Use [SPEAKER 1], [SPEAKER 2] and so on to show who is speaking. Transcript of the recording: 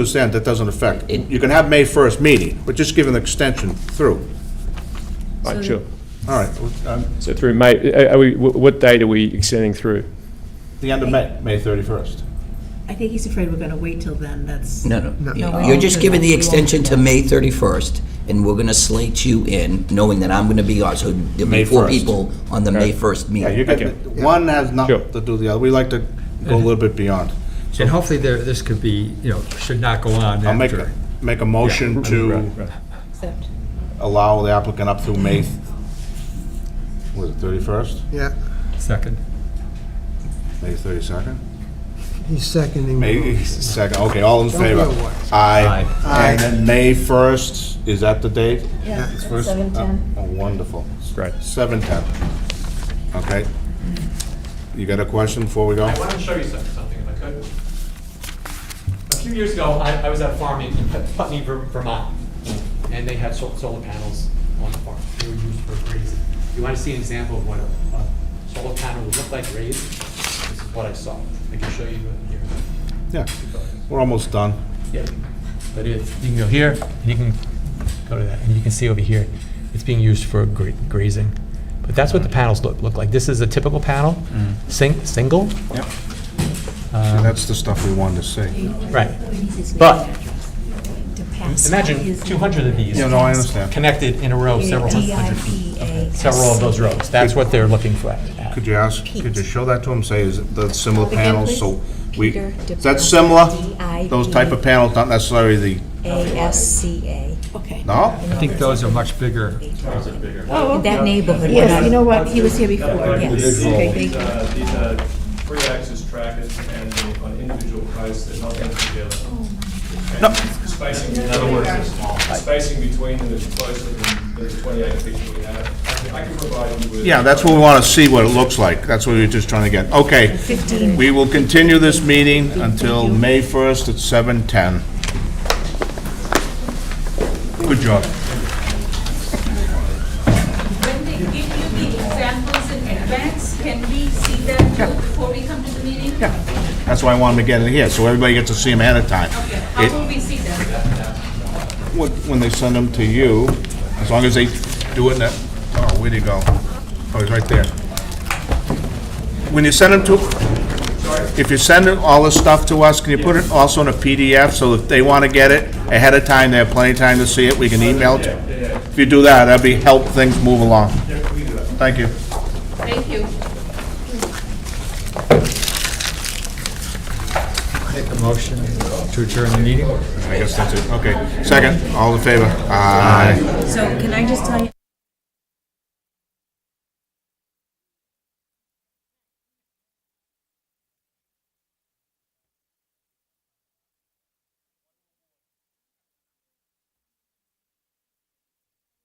[SPEAKER 1] understand that doesn't affect. You can have May 1st meeting, but just give an extension through.
[SPEAKER 2] Right, sure.
[SPEAKER 1] All right, um,
[SPEAKER 2] So through May, uh, are are we, wh- what date are we extending through?
[SPEAKER 1] the end of May, May 31st.
[SPEAKER 3] I think he's afraid we're going to wait till then, that's.
[SPEAKER 4] No, no.
[SPEAKER 3] No, we
[SPEAKER 4] You're
[SPEAKER 3] won't
[SPEAKER 4] just
[SPEAKER 3] do
[SPEAKER 4] giving
[SPEAKER 3] that.
[SPEAKER 4] the
[SPEAKER 3] We won't
[SPEAKER 4] extension
[SPEAKER 3] do
[SPEAKER 4] to
[SPEAKER 3] that.
[SPEAKER 4] May 31st, and we're going to slate you in, knowing that I'm going to be on, so there'll
[SPEAKER 1] May
[SPEAKER 4] be four
[SPEAKER 1] 1st.
[SPEAKER 4] people on the May 1st
[SPEAKER 1] Yeah, you
[SPEAKER 4] meeting.
[SPEAKER 1] can, one has
[SPEAKER 2] Sure.
[SPEAKER 1] nothing to do with the other. We like to go a little bit beyond.
[SPEAKER 5] And hopefully there, this could be, you know, should not go on
[SPEAKER 1] I'll make, a-
[SPEAKER 5] after.
[SPEAKER 1] make a motion to
[SPEAKER 6] Except,
[SPEAKER 1] allow the applicant up through May, th- was it 31st?
[SPEAKER 7] Yeah,
[SPEAKER 5] Second.
[SPEAKER 1] May 32nd?
[SPEAKER 7] he's seconding.
[SPEAKER 1] May 2nd, okay, all in
[SPEAKER 7] Don't
[SPEAKER 1] favor?
[SPEAKER 7] be a wuss.
[SPEAKER 1] Aye.
[SPEAKER 7] Aye.
[SPEAKER 1] And then May 1st, is that the date?
[SPEAKER 6] yeah, it's
[SPEAKER 1] First-
[SPEAKER 6] 7:10.
[SPEAKER 1] oh, Wonderful.
[SPEAKER 2] Great.
[SPEAKER 1] Seven ten. Okay. You got a question before we go?
[SPEAKER 8] I wanted to show you some- something, if I could. A few years ago, I, I was at a farm in Putney, Ver- Vermont, and they had sol- solar panels on the farm. They were used for grazing. You want to see an example of what a, a solar panel would look like raised? This is what I saw. I can show you it here.
[SPEAKER 1] Yeah, we're almost done.
[SPEAKER 8] Yeah, but it, you can go here, and you can go to that, and you can see over here, it's being used for gra- grazing. But that's what the panels look, look like. This is a typical panel, sing, single.
[SPEAKER 1] Yep. That's the stuff we wanted to see.
[SPEAKER 8] Right.
[SPEAKER 3] But.
[SPEAKER 8] But-
[SPEAKER 1] Uh,
[SPEAKER 8] Imagine 200 of these.
[SPEAKER 1] Yeah, no, I understand.
[SPEAKER 8] connected in a row, several hundred, several of those rows. That's what they're looking for. at.
[SPEAKER 1] Could you ask, could you show that to them, say, is it the similar
[SPEAKER 6] Again,
[SPEAKER 1] panels,
[SPEAKER 6] please.
[SPEAKER 1] so we,
[SPEAKER 6] Peter
[SPEAKER 1] is that
[SPEAKER 6] DeBrow,
[SPEAKER 1] similar?
[SPEAKER 6] D-I-B.
[SPEAKER 1] Those type of panels, not necessarily the,
[SPEAKER 6] ASCA.
[SPEAKER 3] Okay.
[SPEAKER 1] no?
[SPEAKER 5] I think those are much bigger.
[SPEAKER 6] In that neighborhood.
[SPEAKER 3] Oh,
[SPEAKER 6] we're
[SPEAKER 3] Yes,
[SPEAKER 6] not-
[SPEAKER 3] you know what, he was here before, yes,
[SPEAKER 9] These,
[SPEAKER 3] okay, thank
[SPEAKER 9] these,
[SPEAKER 3] you.
[SPEAKER 9] uh, these are three axis trackers and they- on individual price, they're not linked together.
[SPEAKER 3] Oh.
[SPEAKER 9] And Spacing, in other words, the spacing between them is closer than the twenty-eight feet we have. I can- I can provide you with.
[SPEAKER 1] Yeah, that's what we want to see, what it looks like. That's what we we're just trying to get. Okay. We will continue this meeting until May 1st at 7:10. Good job.
[SPEAKER 10] When they give you the examples in advance, can we see them too before we come to the meeting?
[SPEAKER 1] Yeah, that's why I wanted to get it here, so everybody gets to see them ahead of time.
[SPEAKER 10] Okay, how
[SPEAKER 1] It-
[SPEAKER 10] will we see them?
[SPEAKER 1] When when they send them to you, as long as they do it in that, oh, where'd he go? Oh, he's right there. When you send them to, if you send all this stuff to us, can you put it also in a PDF, so if they want to get it ahead of time, they have plenty of time to see it, we can email it? If you do that, that'd be, help things move along. Thank you.
[SPEAKER 10] Thank you.
[SPEAKER 5] Make a motion to adjourn the meeting.
[SPEAKER 1] I guess that's it, okay. Second, all in favor? Aye.
[SPEAKER 3] So can I just tell you?